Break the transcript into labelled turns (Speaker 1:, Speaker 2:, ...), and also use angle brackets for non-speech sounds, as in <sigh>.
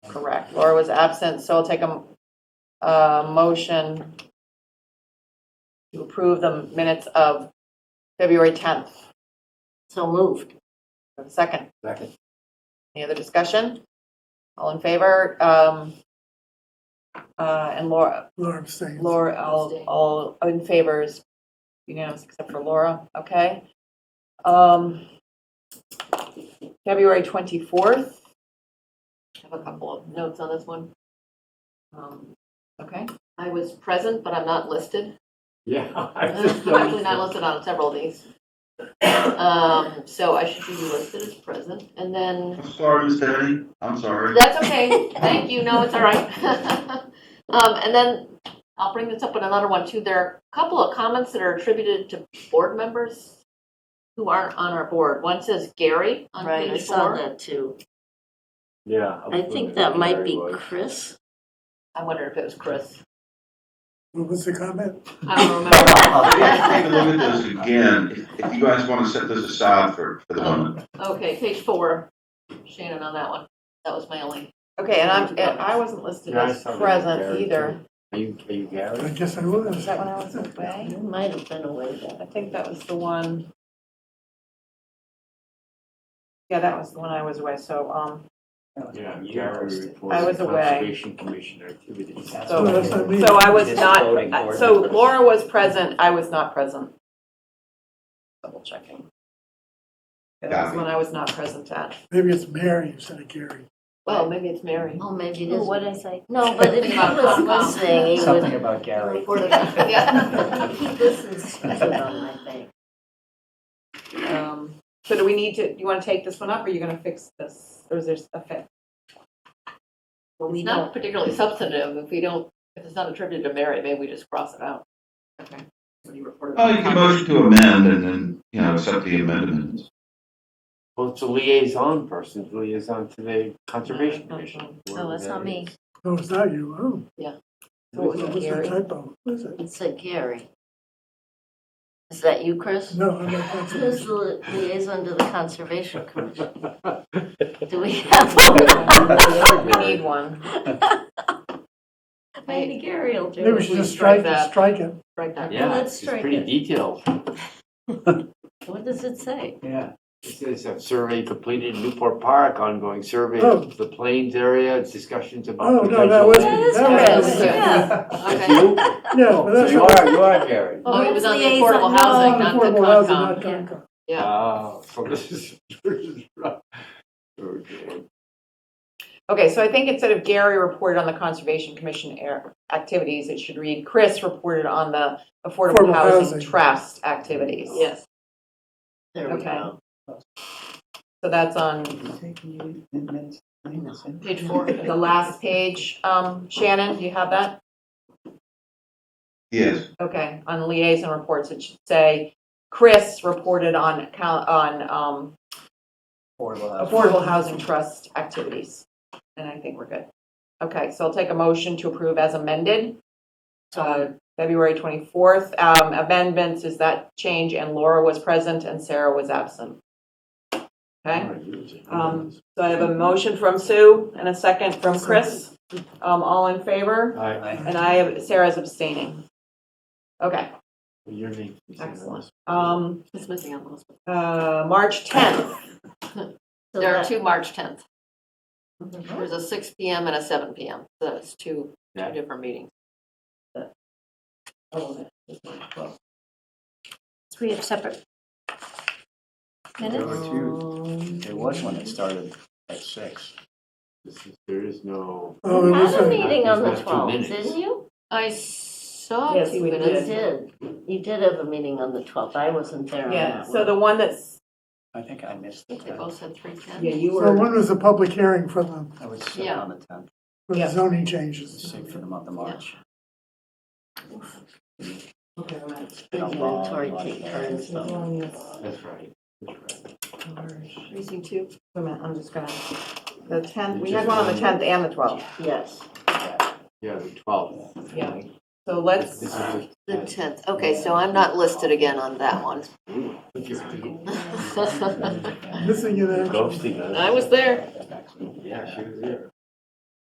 Speaker 1: correct. Laura was absent, so I'll take a, a motion to approve the minutes of February 10th.
Speaker 2: So moved.
Speaker 1: Second,
Speaker 3: Second.
Speaker 1: any other discussion? All in favor? Um, uh, And Laura,
Speaker 4: Laura abstains.
Speaker 1: Laura, all, all in favors, unanimous except for Laura, okay? Um, February 24th, I have a couple of notes on this one. Um, Okay, I was present, but I'm not listed.
Speaker 3: Yeah. <laughs> I
Speaker 1: I'm
Speaker 3: just
Speaker 1: actually not
Speaker 3: noticed
Speaker 1: listed on several of these. Um, So I should be listed as present, and then
Speaker 5: I'm sorry, Miss Henny. I'm sorry.
Speaker 1: That's okay. Thank you. No, it's all right. <laughs> Um, and then I'll bring this up in another one too. There are a couple of comments that are attributed to board members who aren't on our board. One says Gary on
Speaker 2: Right, I
Speaker 1: page
Speaker 2: saw
Speaker 1: four.
Speaker 2: that too.
Speaker 3: it. Yeah.
Speaker 2: I think that might be Chris.
Speaker 1: I wonder if it was Chris.
Speaker 4: What was the comment?
Speaker 1: I don't
Speaker 2: <laughs>
Speaker 5: We have to take a
Speaker 1: remember.
Speaker 5: look at this again, if- if you guys want to set this aside for, for the moment.
Speaker 1: Okay, page four, Shannon on that one. That was my only. Okay, and I'm, and I wasn't listed
Speaker 3: Yeah, I
Speaker 1: as
Speaker 3: saw that
Speaker 1: present
Speaker 3: Gary,
Speaker 1: either.
Speaker 3: Are you, are you
Speaker 4: I
Speaker 3: Gary?
Speaker 4: guess I was.
Speaker 1: Was that when I was away?
Speaker 2: You might have been away then.
Speaker 1: I think that was the one. Yeah, that was the one I was away, so, um,
Speaker 3: Yeah, Gary reports.
Speaker 1: I was
Speaker 3: the
Speaker 1: away.
Speaker 3: Conservation Commission activities.
Speaker 1: So-
Speaker 4: Well, that's what I mean.
Speaker 1: so I was
Speaker 3: Just voting
Speaker 6: uh,
Speaker 1: not, uh,
Speaker 3: board
Speaker 1: so
Speaker 3: members.
Speaker 1: Laura was present, I was not present. Double checking. Yeah, That was
Speaker 5: Got it.
Speaker 1: when I was not present at.
Speaker 4: Maybe it's Mary instead of Gary.
Speaker 1: Well, maybe it's Mary.
Speaker 2: Oh, maybe it
Speaker 7: Oh,
Speaker 2: is.
Speaker 7: what did I say?
Speaker 2: No, but if he was listening, he
Speaker 3: Something
Speaker 2: would.
Speaker 3: about Gary.
Speaker 2: <laughs>
Speaker 1: Yeah.
Speaker 2: He listens to it on my thing.
Speaker 1: Um, So do we need to, you want to take this one up, or are you going to fix this, or is there a fix?
Speaker 2: But we
Speaker 1: It's
Speaker 2: don't
Speaker 1: not particularly substantive, if we don't, if it's not attributed to Mary, maybe we just cross it out. Okay. What do you report?
Speaker 5: Oh, you can motion to amend and then, you know, accept the amendment.
Speaker 3: Well, it's a liaison person, it's a liaison to the Conservation Commission.
Speaker 7: No, that's not me.
Speaker 4: No, it's not you. Oh,
Speaker 1: So it was
Speaker 4: what's the
Speaker 1: Gary.
Speaker 4: typo? What is it?
Speaker 2: It's a Gary. Is that you, Chris?
Speaker 4: No, I'm not. that's it.
Speaker 2: Who's the li- liaison to the Conservation Commission? Do we have one?
Speaker 1: We need one.
Speaker 2: <laughs> Maybe Gary will do
Speaker 4: Maybe we
Speaker 2: it.
Speaker 4: should
Speaker 1: We
Speaker 4: just
Speaker 1: strike
Speaker 4: strike,
Speaker 1: that.
Speaker 4: strike it.
Speaker 1: Right there.
Speaker 3: Yeah,
Speaker 2: Let's
Speaker 3: it's
Speaker 2: strike
Speaker 3: pretty
Speaker 2: it.
Speaker 3: detailed.
Speaker 2: What does it say?
Speaker 3: Yeah. It says a survey completed in Newport Park, ongoing survey
Speaker 4: Oh.
Speaker 3: of the Plains area, discussions
Speaker 4: Oh,
Speaker 3: about
Speaker 4: no, that was.
Speaker 3: potential.
Speaker 2: That is
Speaker 4: that was-
Speaker 1: Chris,
Speaker 4: <laughs>
Speaker 1: yeah.
Speaker 3: That's
Speaker 1: Okay.
Speaker 3: you?
Speaker 4: Yeah, but
Speaker 3: Oh, So
Speaker 4: that's.
Speaker 3: you
Speaker 4: not-
Speaker 3: are, you are Gary.
Speaker 1: Oh, it was on the
Speaker 2: Liaison,
Speaker 1: affordable
Speaker 2: no.
Speaker 1: housing,
Speaker 4: not
Speaker 1: not the
Speaker 4: affordable housing, not
Speaker 1: Concom.
Speaker 4: Concom.
Speaker 1: Yeah.
Speaker 3: Oh, so this <laughs> is, this is right. Okay.
Speaker 1: Okay, so I think instead of Gary reported on the Conservation Commission air- activities, it should read Chris reported on the Affordable
Speaker 4: Affordable
Speaker 1: Housing
Speaker 4: housing.
Speaker 1: Trust activities.
Speaker 2: Yes. There we
Speaker 1: Okay.
Speaker 2: go.
Speaker 1: So that's on
Speaker 6: <laughs>
Speaker 2: Page <laughs> four.
Speaker 1: the last page. Um, Shannon, do you have that?
Speaker 5: Yes,
Speaker 1: Okay, on liaison reports, it should say Chris reported on, account- on um, Affordable Housing Trust activities. And I think we're good. Okay, so I'll take a motion to approve as amended. uh, February 24th. Um, Amendments is that change, and Laura was present and Sarah was absent. Okay, Um, so I have a motion from Sue and a second from Chris. Um, All in favor?
Speaker 3: Aye.
Speaker 1: And I, have Sarah's abstaining. Okay,
Speaker 3: Your name. is in this.
Speaker 1: excellent. Um,
Speaker 2: It's missing on those.
Speaker 1: uh, March 10th.
Speaker 2: So
Speaker 1: There are
Speaker 2: that-
Speaker 1: two March 10th.
Speaker 7: Mm-hmm.
Speaker 1: There's a 6 PM and a 7 PM. So that's two,
Speaker 3: Yeah.
Speaker 1: two different meetings.
Speaker 7: Oh, We have separate
Speaker 6: There
Speaker 7: minutes?
Speaker 6: were two, there was one that started at six.
Speaker 3: This is- There is no.
Speaker 4: Oh, it
Speaker 2: You
Speaker 4: was
Speaker 2: Had a
Speaker 4: a,
Speaker 2: meeting on the
Speaker 3: There's not two
Speaker 2: 12th,
Speaker 3: minutes.
Speaker 2: didn't you?
Speaker 1: I saw
Speaker 2: Yes,
Speaker 1: two
Speaker 2: we
Speaker 1: minutes.
Speaker 2: did. You did have a meeting on the 12th. I wasn't there on
Speaker 1: Yeah,
Speaker 2: that
Speaker 1: so
Speaker 2: one.
Speaker 1: the one that's,
Speaker 6: I think I missed the
Speaker 1: they
Speaker 6: tenth.
Speaker 1: both said three ten.
Speaker 2: Yeah, you
Speaker 4: so
Speaker 2: were,
Speaker 4: one was a public hearing for the,
Speaker 6: I was sick
Speaker 1: Yeah.
Speaker 6: on the tenth,
Speaker 4: for
Speaker 1: Yeah.
Speaker 4: the zoning changes.
Speaker 6: sick for the month of March.
Speaker 2: the inventory take turns though.
Speaker 3: That's right. That's right.
Speaker 1: Precinct two. Wait a minute, I'm just gonna, the tenth,
Speaker 3: You
Speaker 1: we had
Speaker 3: just-
Speaker 1: one on the tenth and the twelfth.
Speaker 2: Yes,
Speaker 3: Yeah, the twelfth.
Speaker 1: Yeah. So let's,
Speaker 3: This is
Speaker 2: the 10th. Okay, so I'm not listed again on that one.
Speaker 1: I
Speaker 4: Missing in action.
Speaker 3: Ghosting us.
Speaker 1: was there.
Speaker 3: Yeah, she was here.